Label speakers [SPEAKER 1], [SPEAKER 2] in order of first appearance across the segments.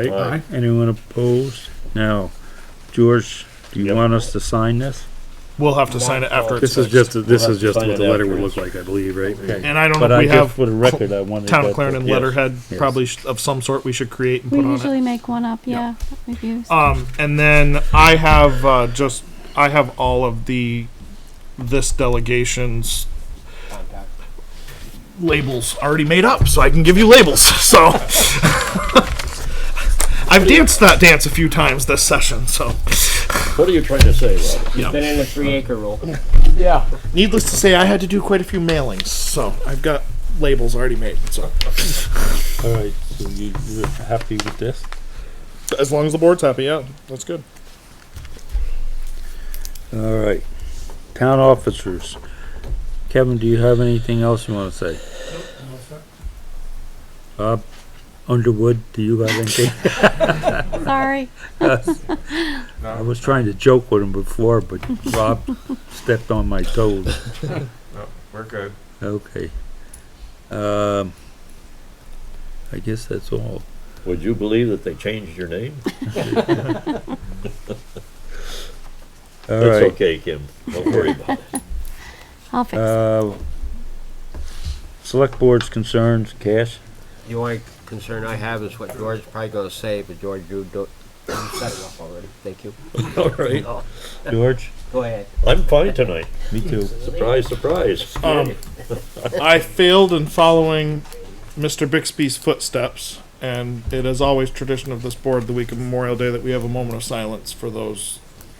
[SPEAKER 1] Aye. Anyone opposed? Now, George, do you
[SPEAKER 2] Yep.
[SPEAKER 1] want us to sign this?
[SPEAKER 3] We'll have to sign it after it's
[SPEAKER 1] This is
[SPEAKER 3] finished.
[SPEAKER 1] just, this
[SPEAKER 2] have
[SPEAKER 1] is
[SPEAKER 2] to
[SPEAKER 1] just
[SPEAKER 2] sign
[SPEAKER 1] what
[SPEAKER 2] it
[SPEAKER 1] the letter would look
[SPEAKER 2] afterwards.
[SPEAKER 1] like, I believe, right?
[SPEAKER 3] And I don't
[SPEAKER 1] But
[SPEAKER 3] know,
[SPEAKER 1] I
[SPEAKER 3] we
[SPEAKER 1] just,
[SPEAKER 3] have
[SPEAKER 1] for the record, I wanted.
[SPEAKER 3] town
[SPEAKER 1] that-
[SPEAKER 3] of Clarendon
[SPEAKER 1] yes.
[SPEAKER 3] letterhead,
[SPEAKER 1] yes.
[SPEAKER 3] probably sh- of some sort we should create and
[SPEAKER 4] We
[SPEAKER 3] put on it.
[SPEAKER 4] usually make one up, yeah, we've used.
[SPEAKER 3] Um, and then I have uh, just I have all of the this delegation's labels already made up, so I can give you labels. So I've danced that dance a few times this session. So
[SPEAKER 2] What are you trying to say, Robert?
[SPEAKER 5] Been in the three acre rule.
[SPEAKER 3] yeah, needless to say, I had to do quite a few mailings, so I've got labels already made. So
[SPEAKER 1] All right, so you, you're happy with this?
[SPEAKER 3] as long as the board's happy, yeah, that's good.
[SPEAKER 1] All right. Town officers. Kevin, do you have anything else you wanna say? Bob Underwood, do you have anything?
[SPEAKER 4] Sorry,
[SPEAKER 1] I was trying to joke with him before, but Rob stepped on my toes.
[SPEAKER 6] We're good.
[SPEAKER 1] Okay. Um, I guess that's all.
[SPEAKER 2] Would you believe that they changed your name?
[SPEAKER 1] All
[SPEAKER 2] That's
[SPEAKER 1] right.
[SPEAKER 2] okay, Kim. Don't worry about it.
[SPEAKER 4] I'll fix it.
[SPEAKER 1] Uh, select board's concerns, Cash?
[SPEAKER 5] The only concern I have is what George is probably gonna say, but George, you don't, you said enough already. Thank you.
[SPEAKER 2] All right.
[SPEAKER 5] Oh,
[SPEAKER 1] George?
[SPEAKER 5] Go ahead.
[SPEAKER 2] I'm fine tonight.
[SPEAKER 1] Me too.
[SPEAKER 2] Surprise, surprise.
[SPEAKER 3] Um, I failed in following Mr. Bixby's footsteps, and it is always tradition of this board the week of Memorial Day that we have a moment of silence for those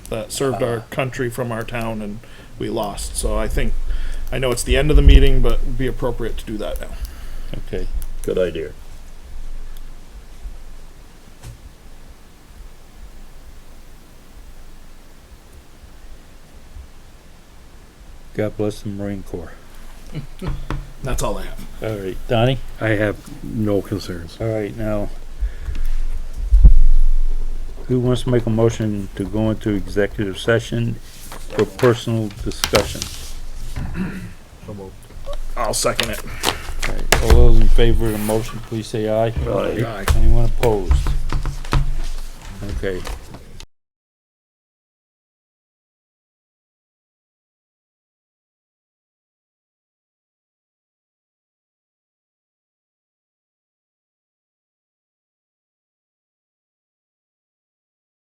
[SPEAKER 3] that served our country from our town and we lost. So I think, I know it's the end of the meeting, but it'd be appropriate to do that now.
[SPEAKER 1] Okay.
[SPEAKER 2] Good idea.
[SPEAKER 1] God bless the Marine Corps.
[SPEAKER 3] That's all I have.
[SPEAKER 1] All right, Donnie?
[SPEAKER 6] I have no concerns.
[SPEAKER 1] All right, now. Who wants to make a motion to go into executive session for personal discussion?
[SPEAKER 5] So moved.
[SPEAKER 3] I'll second it.
[SPEAKER 1] All right, All those in favor of the motion, please say aye.
[SPEAKER 2] Aye.
[SPEAKER 1] Anyone opposed? Okay,